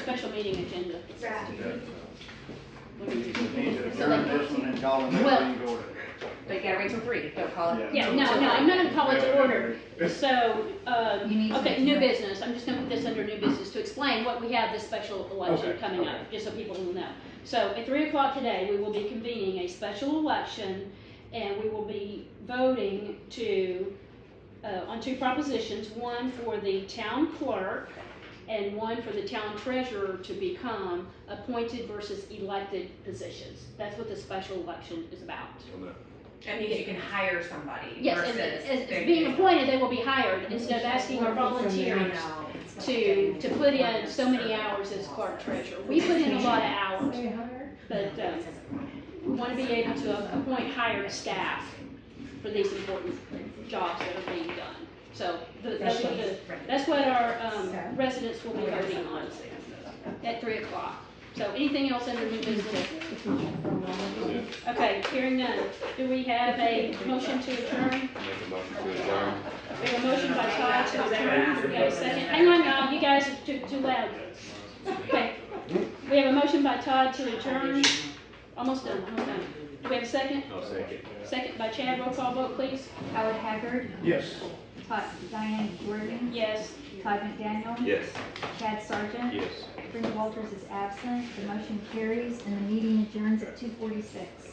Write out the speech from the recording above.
special meeting agenda. Right. What do you We Need to do? So adjourn like- this one and call the next Well- meeting to order. But you gotta wait till three, don't call it. Yeah, no, no, I'm not gonna call it to order. So, You um, need okay, to- new business, I'm just gonna put this under new business to explain what we have this special election Okay, coming okay. up, just so people will know. So at three o'clock today, we will be convening a special election and we will be voting to, uh, on two propositions, one for the town clerk and one for the town treasurer to become appointed versus elected positions. That's what the special election is about. That means you can hire somebody Yes, versus. and as, they're as being doing- appointed, they will be hired instead of asking our I volunteers know, it's like to, getting to put in appointments so many or- hours as clerk treasurer. We put in a lot of hours, but, uh, we want to be able to appoint hired staff for these important jobs that are being done. So, the- that's what the, that's what our, um, residents will be voting on at three o'clock. So anything else under new business? Okay, hearing none. Do we have a motion to adjourn? Make a motion to adjourn. We have a motion by Todd to adjourn, we have a second, hang on, y'all, you guys are too, too loud. Okay, we have a motion by Todd to adjourn, almost done, almost done. Do we have a second? I'll second. Second by Chad, roll call vote, please. Howard Haggard, Yes. Todd, Diane Jordan, Yes, Todd McDaniel, Yes. Chad Sargent, Yes. Brenda Walters is absent. The motion carries and the meeting adjourns at two forty-six.